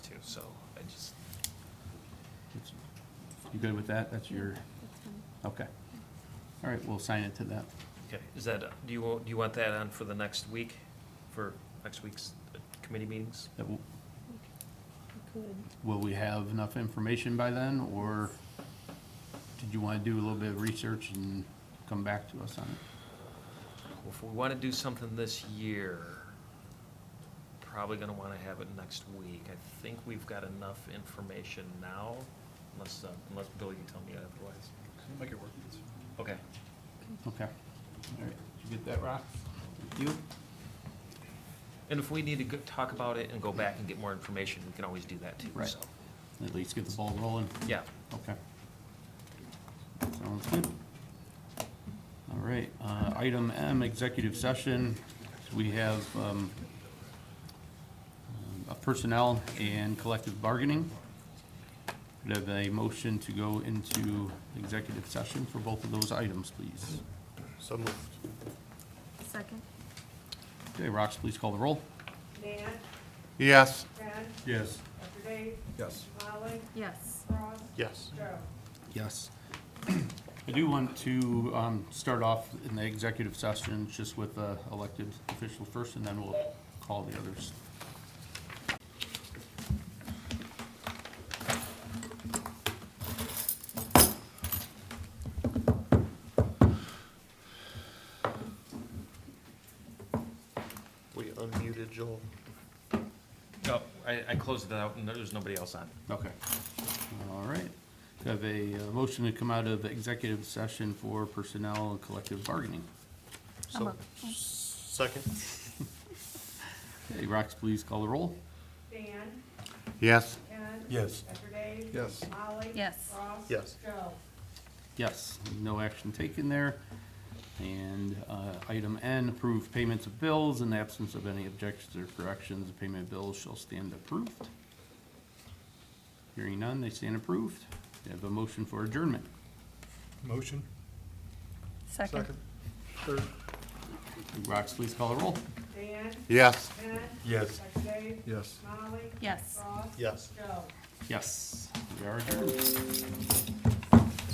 You good with that? That's your, okay. All right, we'll sign it to that. Okay, is that, do you, want- do you want that on for the next week, for next week's uh, committee meetings? That will- Good. Will we have enough information by then, or did you want to do a little bit of research and come back to us on it? Well, If we want to do something this year, probably going to want to have it next week. I think we've got enough information now, unless, uh, unless Bill, you tell me otherwise. Make it work. Okay. Okay. All right, did you get that, Rock? You? And if we need to go- talk about it and go back and get more information, we can always do that too, Right. so. At least get the ball rolling. Yeah. Okay. Sounds good. All right, uh, item M, executive session. We have um, a personnel and collective bargaining. Could I have a motion to go into executive session for both of those items, please. So moved. Second? Okay, Rox, please call the roll. Nan, Yes. Ken, Yes. Dr. Dave, Yes. Molly, Yes. Ross, Yes. Joe. Yes. I do want to um, start off in the executive session just with the elected official first, and then we'll call the others. We unmuted Joel. No, Oh, I, I closed that out, and there's nobody else on. Okay. All right. Do I Have a uh, motion to come out of executive session for personnel and collective bargaining. I'm So, up. second? Okay, Rox, please call the roll. Nan, Yes. Ken. Yes. Dr. Dave. Yes. Molly. Yes. Ross. Yes. Joe. Yes, no action taken there. And uh, item N, approve payments of bills. In the absence of any objections or corrections, the payment of bills shall stand approved. Hearing none, they stand approved. Do I Have a motion for adjournment. Motion? Second? Third? Rox, please call the roll. Nan, Yes. Ken. Yes. Dr. Dave, Yes. Molly. Yes. Ross. Yes. Joe. Yes, we are adjourned.